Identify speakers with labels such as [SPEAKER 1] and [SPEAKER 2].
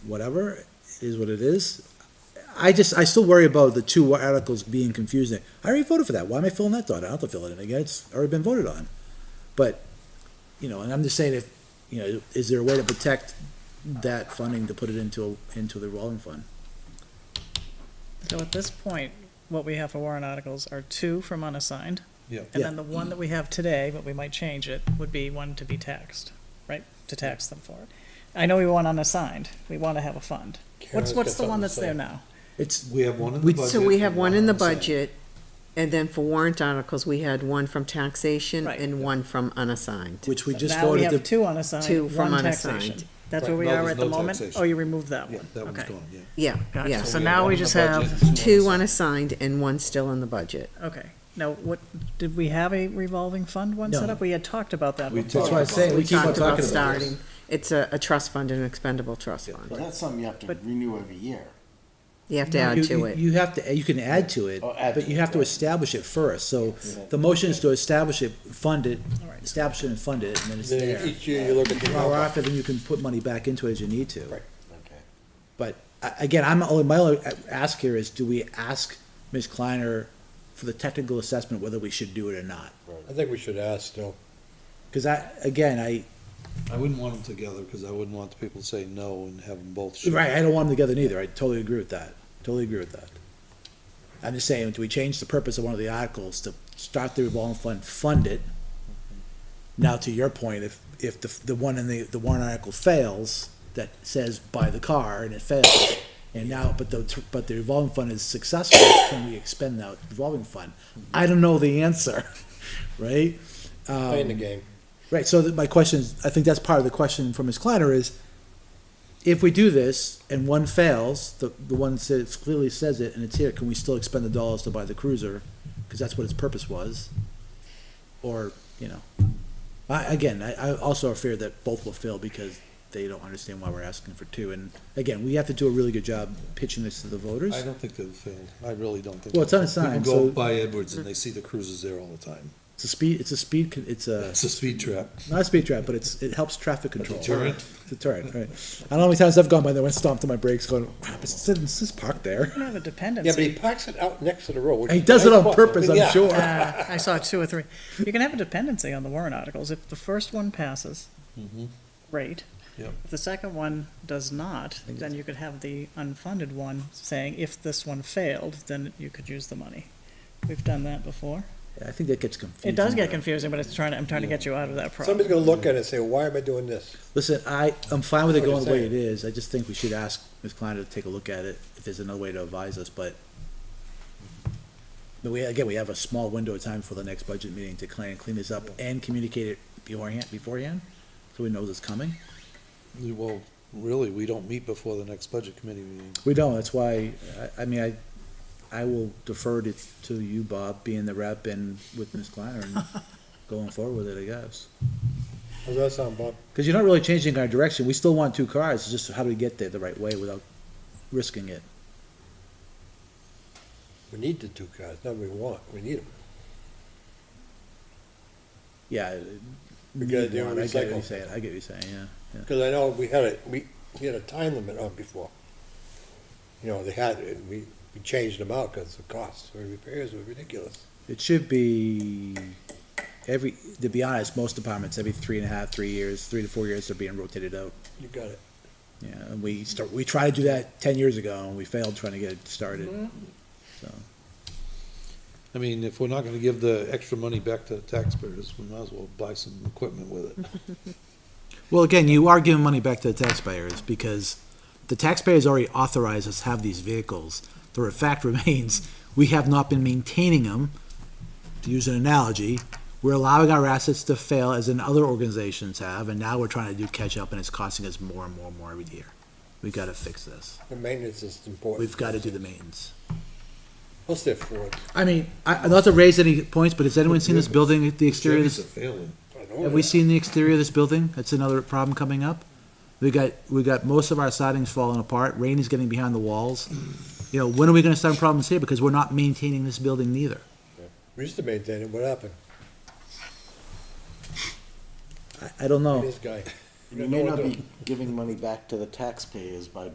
[SPEAKER 1] whatever, it is what it is. I just, I still worry about the two articles being confusing. I already voted for that, why am I filling that thought? I don't have to fill it in again, it's already been voted on. But, you know, and I'm just saying if, you know, is there a way to protect that funding to put it into, into the revolving fund?
[SPEAKER 2] So at this point, what we have for warrant articles are two from unassigned.
[SPEAKER 3] Yeah.
[SPEAKER 2] And then the one that we have today, but we might change it, would be one to be taxed, right? To tax them for it. I know we want unassigned. We want to have a fund. What's,
[SPEAKER 3] Karen's
[SPEAKER 2] what's
[SPEAKER 3] got
[SPEAKER 2] the one
[SPEAKER 3] something to
[SPEAKER 2] that's
[SPEAKER 3] say.
[SPEAKER 2] there now?
[SPEAKER 1] It's,
[SPEAKER 3] We have one in
[SPEAKER 1] We-
[SPEAKER 3] the budget.
[SPEAKER 4] So we have
[SPEAKER 3] and
[SPEAKER 4] one in the
[SPEAKER 3] side.
[SPEAKER 4] budget, and then for warrant articles, we had one from taxation
[SPEAKER 2] Right.
[SPEAKER 4] and one from unassigned.
[SPEAKER 1] which we just
[SPEAKER 2] Now we
[SPEAKER 1] voted
[SPEAKER 2] have
[SPEAKER 1] to,
[SPEAKER 2] two unassigned,
[SPEAKER 4] Two from
[SPEAKER 2] one taxation.
[SPEAKER 4] unassigned.
[SPEAKER 2] That's
[SPEAKER 3] Right,
[SPEAKER 2] where we
[SPEAKER 3] no,
[SPEAKER 2] are
[SPEAKER 3] there's
[SPEAKER 2] at the
[SPEAKER 3] no
[SPEAKER 2] moment?
[SPEAKER 3] taxation.
[SPEAKER 2] Oh, you removed that
[SPEAKER 3] Yeah,
[SPEAKER 2] one?
[SPEAKER 3] that one's
[SPEAKER 2] Okay.
[SPEAKER 3] gone, yeah.
[SPEAKER 4] Yeah, yeah.
[SPEAKER 2] Gotcha.
[SPEAKER 4] So
[SPEAKER 3] we
[SPEAKER 4] now
[SPEAKER 3] one
[SPEAKER 4] we
[SPEAKER 3] in the
[SPEAKER 4] just
[SPEAKER 3] budget
[SPEAKER 4] have
[SPEAKER 3] and
[SPEAKER 4] two
[SPEAKER 3] on the
[SPEAKER 4] unassigned and one still in the budget.
[SPEAKER 2] Okay. Now, what, did we have a revolving fund one
[SPEAKER 1] No.
[SPEAKER 2] set up? We had talked about that
[SPEAKER 3] We
[SPEAKER 2] before.
[SPEAKER 1] that's why I say, we keep on
[SPEAKER 4] Talked about
[SPEAKER 1] talking about
[SPEAKER 4] starting,
[SPEAKER 1] this.
[SPEAKER 4] it's a, a trust fund and an expendable trust
[SPEAKER 5] But
[SPEAKER 4] fund.
[SPEAKER 5] that's something you have to
[SPEAKER 2] But-
[SPEAKER 5] renew every year.
[SPEAKER 4] You have to add
[SPEAKER 1] You-
[SPEAKER 4] to
[SPEAKER 1] you-
[SPEAKER 4] it.
[SPEAKER 1] You have to, you can add to it,
[SPEAKER 5] Oh, add
[SPEAKER 1] but
[SPEAKER 5] to
[SPEAKER 1] you
[SPEAKER 5] it,
[SPEAKER 1] have to
[SPEAKER 5] right.
[SPEAKER 1] establish it first, so the motion is to establish it, fund it,
[SPEAKER 2] All right.
[SPEAKER 1] establish it and fund it, and then it's
[SPEAKER 3] Then
[SPEAKER 1] there.
[SPEAKER 3] each year you look at the.
[SPEAKER 1] Or after, then you can put money back into it as you need to.
[SPEAKER 3] Right.
[SPEAKER 5] Okay.
[SPEAKER 1] But, I- again, I'm, only- my only ask here is, do we ask Ms. Kleiner for the technical assessment whether we should do it or not?
[SPEAKER 3] I think we should ask still.
[SPEAKER 1] Cause I, again, I,
[SPEAKER 3] I wouldn't want them together because I wouldn't want the people to say no and have them both. shoot.
[SPEAKER 1] right, I don't want them together neither, I totally agree with that, totally agree with that. I'm just saying, do we change the purpose of one of the articles to start the revolving fund, fund it? Now, to your point, if, if the, the one in the, the warrant article fails, that says buy the car and it fails, and now, but the, but the revolving fund is successful, can we expend that revolving fund? I don't know the answer, right? Um,
[SPEAKER 3] Playing the game.
[SPEAKER 1] Right, so that my question is, I think that's part of the question from Ms. Kleiner is, if we do this and one fails, the, the one says, clearly says it and it's here, can we still expend the dollars to buy the cruiser? Cause that's what its purpose was. Or, you know, I, again, I, I also fear that both will fail because they don't understand why we're asking for two. And again, we have to do a really good job pitching this to the voters.
[SPEAKER 3] I don't think they've failed. I really don't think.
[SPEAKER 1] Well, it's
[SPEAKER 3] they've
[SPEAKER 1] on
[SPEAKER 3] failed.
[SPEAKER 1] sign,
[SPEAKER 3] People
[SPEAKER 1] so-
[SPEAKER 3] go by Edwards and they see the cruises there all the time.
[SPEAKER 1] It's a speed, it's a speed, con- it's a,
[SPEAKER 3] It's a speed trap.
[SPEAKER 1] not a speed trap, but it's, it helps traffic control.
[SPEAKER 3] deterrent.
[SPEAKER 1] Deterrent, right. I don't know how many times I've gone by there and stomped on my brakes going, crap, it's, it's just parked there.
[SPEAKER 2] We have a dependency.
[SPEAKER 6] Yeah, but he parks it out next to the road. which
[SPEAKER 1] He
[SPEAKER 6] is
[SPEAKER 1] does it
[SPEAKER 6] nice
[SPEAKER 1] on
[SPEAKER 6] spot.
[SPEAKER 1] purpose, I'm
[SPEAKER 6] Yeah.
[SPEAKER 1] sure.
[SPEAKER 2] Uh, I saw two or three. You can have a dependency on the warrant articles. If the first one passes, great.
[SPEAKER 3] Yep.
[SPEAKER 2] If the second one does not, then you could have the unfunded one saying, if this one failed, then you could use the money. We've done that before.
[SPEAKER 1] I think that gets confusing.
[SPEAKER 2] It does get
[SPEAKER 1] though.
[SPEAKER 2] confusing, but it's trying, to- I'm trying to get you out of that problem.
[SPEAKER 6] Somebody's gonna look at it and say, why am I doing this?
[SPEAKER 1] Listen, I, I'm fine with it
[SPEAKER 6] That's
[SPEAKER 1] going
[SPEAKER 6] what
[SPEAKER 1] the way it
[SPEAKER 6] I'm
[SPEAKER 1] is. I just think we should ask Ms. Klein to take a look at it, if there's another way to advise us, but but we, again, we have a small window of time for the next budget meeting to clean, clean this up and communicate it beforehand, beforehand, so we know it's coming.
[SPEAKER 3] Well, really, we don't meet before the next budget committee meeting.
[SPEAKER 1] We don't, that's why, I, I mean, I, I will defer to, to you, Bob, being the rep and with Ms. Kleiner and going forward with it, I guess.
[SPEAKER 6] How's that sound, Bob?
[SPEAKER 1] Cause you're not really changing our direction, we still want two cars, it's just how do we get there the right way without risking it?
[SPEAKER 6] We need the two cars, not we want, we need them.
[SPEAKER 1] Yeah. uh,
[SPEAKER 6] We gotta do
[SPEAKER 1] I get what you're
[SPEAKER 6] recycle.
[SPEAKER 1] saying, I get what you're saying, yeah.
[SPEAKER 6] Because I know we had a, we, we had a time limit on before. You know, they had, it, and we, we changed them out because the costs of repairs were ridiculous.
[SPEAKER 1] It should be every, to be honest, most departments, every three and a half, three years, three to four years, they're being rotated out.
[SPEAKER 6] You got it.
[SPEAKER 1] Yeah, and we start, we tried to do that ten years ago and we failed trying to get it started.
[SPEAKER 3] I mean, if we're not gonna give the extra money back to the taxpayers, we might as well buy some equipment with it.
[SPEAKER 1] Well, again, you are giving money back to the taxpayers because the taxpayers already authorized us to have these vehicles. The fact remains, we have not been maintaining them. To use an analogy, we're allowing our assets to fail as in other organizations have, and now we're trying to do catch up and it's costing us more and more and more every year. We've got to fix this.
[SPEAKER 6] The maintenance is important.
[SPEAKER 1] We've got to do the maintenance.
[SPEAKER 6] Plus they're Ford.
[SPEAKER 1] I mean, I, not to raise any points, but has anyone seen this building, the exterior of
[SPEAKER 3] Chevys
[SPEAKER 1] this?
[SPEAKER 3] are failing.
[SPEAKER 6] I know
[SPEAKER 1] Have we
[SPEAKER 6] that.
[SPEAKER 1] seen the exterior of this building? That's another problem coming up. We got, we got most of our siding's falling apart, rain is getting behind the walls. You know, when are we gonna start problems here? Because we're not maintaining this building neither.
[SPEAKER 6] We used to maintain it, what happened?
[SPEAKER 1] I don't know.
[SPEAKER 6] This guy.
[SPEAKER 1] Oh.
[SPEAKER 5] You may not be giving money back to the taxpayers by